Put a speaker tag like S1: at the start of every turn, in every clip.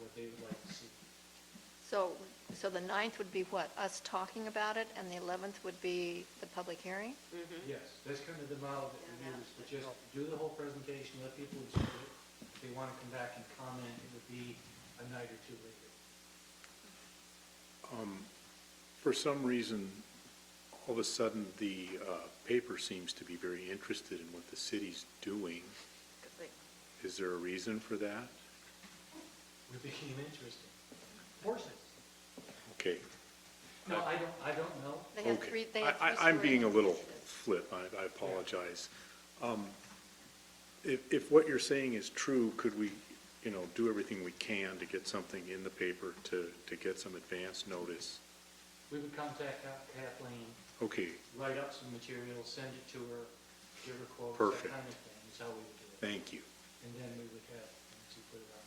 S1: what they would like to see.
S2: So, so the ninth would be what, us talking about it, and the eleventh would be the public hearing?
S1: Yes, that's kind of the model that we use, but just do the whole presentation, let people observe it. If they want to come back and comment, it would be a night or two later.
S3: For some reason, all of a sudden, the uh, paper seems to be very interested in what the city's doing. Is there a reason for that?
S1: We became interested. Horses.
S3: Okay.
S1: No, I don't, I don't know.
S2: They had three,
S3: Okay.
S2: they
S3: I-
S2: had three
S3: I- I'm being a
S2: storylines.
S3: little flip, I I apologize. Um, If, if what you're saying is true, could we, you know, do everything we can to get something in the paper to, to get some advance notice?
S1: We would contact Kathleen,
S3: Okay,
S1: write up some material, send it to her, give her quotes, that
S3: Perfect.
S1: kind of thing, is how we would do it.
S3: thank you.
S1: And then we would have, things to put it on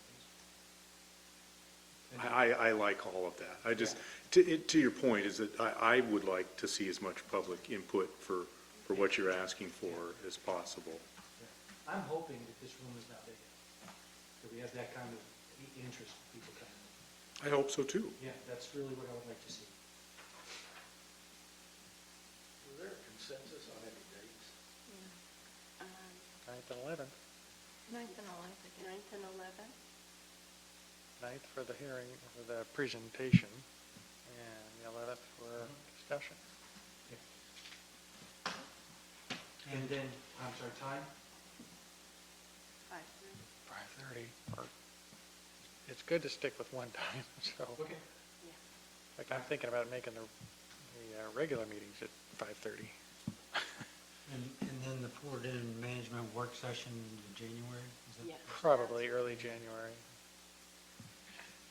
S1: Facebook. And-
S3: I, I I like all of that. I just, to, it- to your point, is that I, I would like to see as much public input for, for what you're asking for as possible.
S1: yeah. I'm hoping that this room is not big enough, that we have that kind of i- interest, in people coming in.
S3: I hope so, too.
S1: Yeah, that's really what I would like to see.
S4: Is there a consensus on any dates?
S5: Ninth and eleventh,
S2: Ninth and eleventh, I guess.
S6: Ninth and eleventh?
S5: ninth for the hearing, for the presentation, and the eleventh for discussion.
S1: And then, I'm sorry, time?
S6: Five thirty.
S5: Five-thirty, or, it's good to stick with one time, so,
S1: Okay.
S5: like, I'm thinking about making the, the uh, regular meetings at five-thirty.
S7: And, and then the Port End Management Work Session in January? is that-
S6: Yeah.
S5: Probably early January,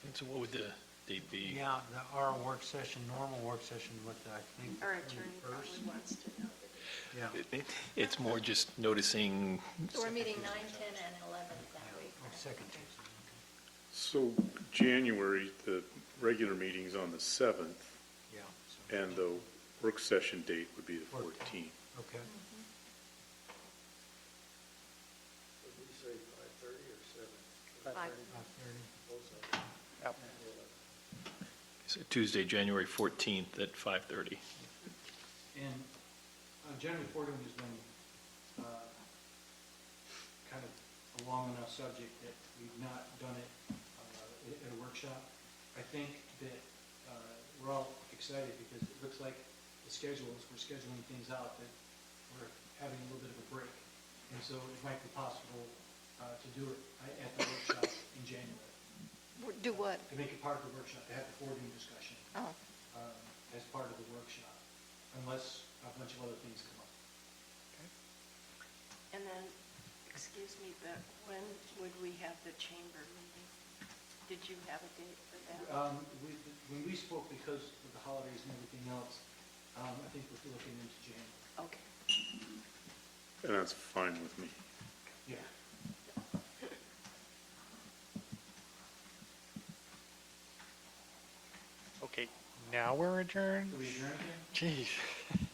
S4: And so what would the date be?
S7: Yeah, the, our work session, normal work session with, I think.
S6: Our attorney probably
S7: 21st.
S6: wants to know the date.
S7: Yeah,
S4: It- it- It's more just noticing,
S2: So we're meeting nine, ten, and eleven that week.
S7: like second Tuesday.
S3: So January, the regular meeting's on the 7th,
S7: okay. Yeah, so,
S3: and the work session date would be the 14th.
S7: okay.
S4: Would we say five thirty or seven?
S2: Five.
S7: Five thirty.
S5: yep,
S4: So Tuesday, January fourteenth at five thirty.
S1: And uh, January Fordham has been uh, kind of a long enough subject that we've not done it uh, at at a workshop. I think that uh, we're all excited because it looks like the schedules, we're scheduling things out that we're having a little bit of a break. And so it might be possible uh, to do it uh, at the workshop in January.
S2: W- Do what?
S1: To make it part of the workshop, to have the Fordham discussion
S2: Oh,
S1: um, as part of the workshop, unless a bunch of other things come up.
S6: And then, excuse me, but when would we have the chamber meeting? Did you have a date for that?
S1: Um, we- When we spoke, because of the holidays and everything else, um, I think we're looking into January.
S6: Okay.
S3: And that's fine with me.
S1: Yeah.
S5: okay, now we're adjourned?
S1: Do we adjourn again?
S5: Jeez.